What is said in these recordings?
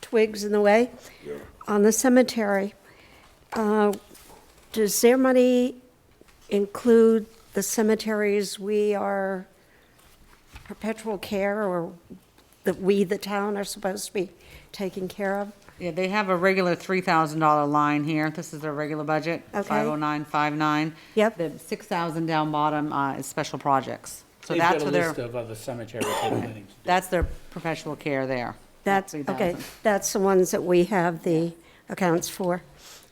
twigs in the way on the cemetery. Uh, Does their money include the cemeteries we are perpetual care or that we, the town, are supposed to be taking care of? Yeah, they have a regular three thousand dollar line here. This is their regular budget, Okay. five oh nine, five nine. Yep. The six thousand down bottom, uh, is special projects. So They've got that's a what list their, of other cemetery planning. that's their professional care there. That's, Three okay, thousand. that's the ones that we have the accounts for.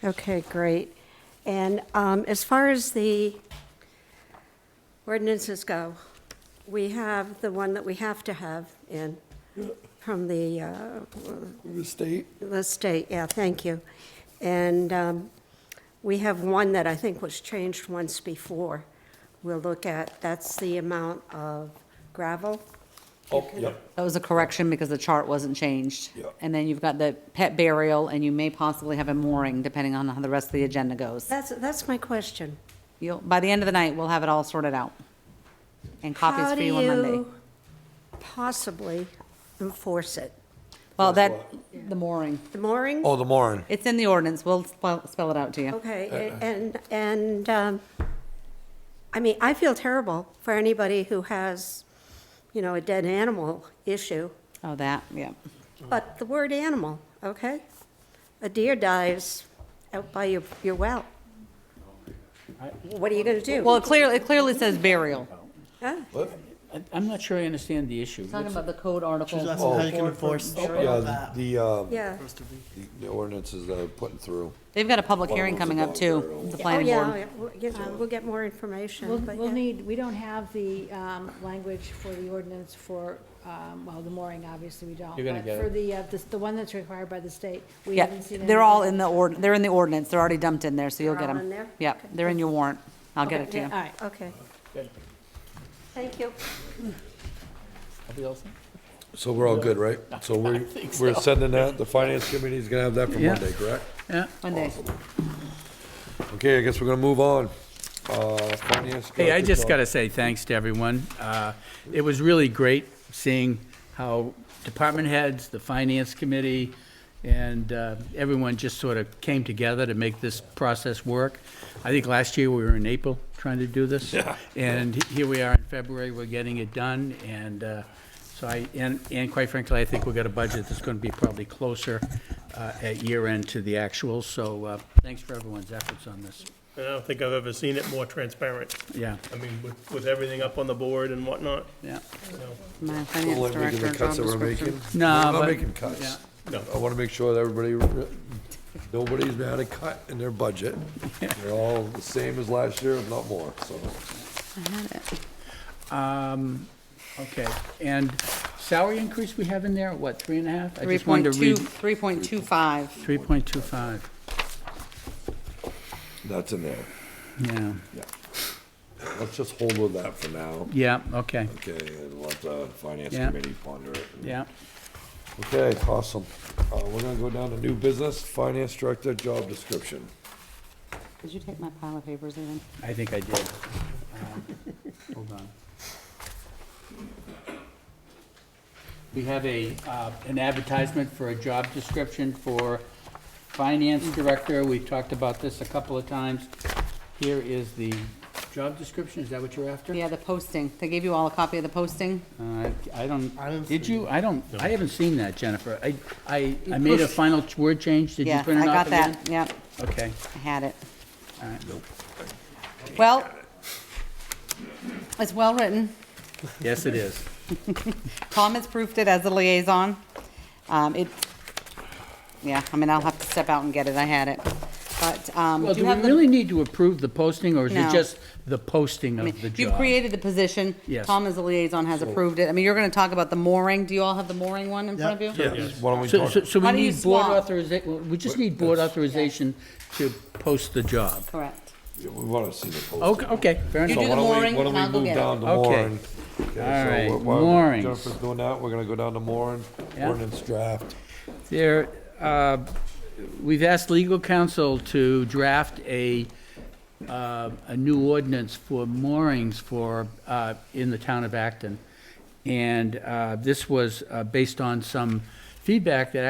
Okay, great. And um, as far as the ordinances go, we have the one that we have to have in, from the, uh, The state? the state, yeah, thank you. And um, we have one that I think was changed once before. We'll look at, that's the amount of gravel. Oh, yeah. That was a correction because the chart wasn't changed. Yeah. And then you've got the pet burial and you may possibly have a mooring depending on how the rest of the agenda goes. That's, that's my question. You'll, by the end of the night, we'll have it all sorted out. And copies How for do you on Monday. you Possibly enforce it. Well, that, the mooring. The mooring? Oh, the Moran. It's in the ordinance. We'll spell, spell it out to you. Okay, a- and, and, um, I mean, I feel terrible for anybody who has, you know, a dead animal issue, Oh, that, yeah. but the word animal, okay? A deer dies out by your, your well. What are you gonna do? Well, it clearly, it clearly says burial. Huh? I- I'm not sure I understand the issue. Talking about the code article. She's asking how you can enforce uh, Yeah, that. the, um, Yeah. the- the ordinances that are putting through. They've got a public Well, hearing it's a coming up dog too, burial. with the Oh, planning yeah, board. yeah, we'll yeah, we'll get more information, We'll, but we'll yeah. need, we don't have the um, language for the ordinance for, um, well, the mooring, obviously, we don't. You're gonna but get For it. the, uh, this- the one that's required by the state, we Yeah, haven't seen. they're all in anything. the ord, they're in the ordinance. They're already dumped in there, so you'll They're get all them. in there? Yeah, Okay. they're in your warrant. I'll get Okay, it to yeah, you. All right. Okay, Good. thank you. Everybody else? So we're all good, right? So we're, we're sending that, the finance committee's gonna have that for Yeah. Monday, correct? Yeah. Monday. Okay, I guess we're gonna move on. Uh, finance. Hey, I director, just Tom. got to say thanks to everyone. Uh, It was really great seeing how department heads, the finance committee, and uh, everyone just sort of came together to make this process work. I think last year we were in April trying to do this. And here we are in February, we're getting it done, and uh, so I, and, and quite frankly, I think we've got a budget that's going to be probably closer uh, at year end to the actuals, so uh, thanks for everyone's efforts on this. And I don't think I've ever seen it more transparent. Yeah, I mean, with, with everything up on the board and whatnot, yeah. you know. My Don't finance like making director, the job cuts that we're description. making. No, We're not but- making cuts. No. I wanna make sure that everybody, re- nobody's had a cut in their budget. They're all the same as last year, if not more, so. Um, okay, and salary increase we have in there, what, three and a half? I Three just wanted point to two, read three point two five. Three point two five, That's in there. yeah, Yeah. Let's just hold with that for now. yeah, okay, Okay, and let the finance Yeah. committee ponder it. yeah. Okay, awesome. Uh, we're gonna go down to new business, finance director, job description. Did you take my pile of papers even? I think I did. Um, Hold on. We have a, uh, an advertisement for a job description for finance director. We've talked about this a couple of times. Here is the job description, is that what you're after? Yeah, the posting. They gave you all a copy of the posting? Uh, I I don't, don't did see you? I don't, I haven't seen that, Jennifer. I, I, I You made a pushed- final t- word change. Did you Yeah, print I it off got again? that. Yep, Okay, I had it. all right. Well, it's well-written. Yes, it is. Tom has proofed it as a liaison. Um, it, yeah, I mean, I'll have to step out and get it, I had it. But, um, Well, do do you we have the? really need to approve the posting, or is No. it just the posting I mean, of the You've job? created the position. Yes. Tom as a liaison has approved it. I mean, you're gonna talk about the mooring. Do you all have the mooring one in front of Yeah. you? Yes. Why don't we So, talk? so, so we How do you need board swap? authorization, we just need board authorization to post the job. Correct. We wanna see the posting. Okay, okay, fair Oh, You enough. So do why the don't we- mooring, why don't and we I'll go move get it. down to Okay. Warren? Okay, All so right, wh- while moorings. Jennifer's doing that, we're gonna go down to Warren, Yeah. ordinance draft. There, uh, we've asked legal counsel to draft a, uh, a new ordinance for moorings for, uh, in the town of Acton. And uh, this was uh, based on some feedback that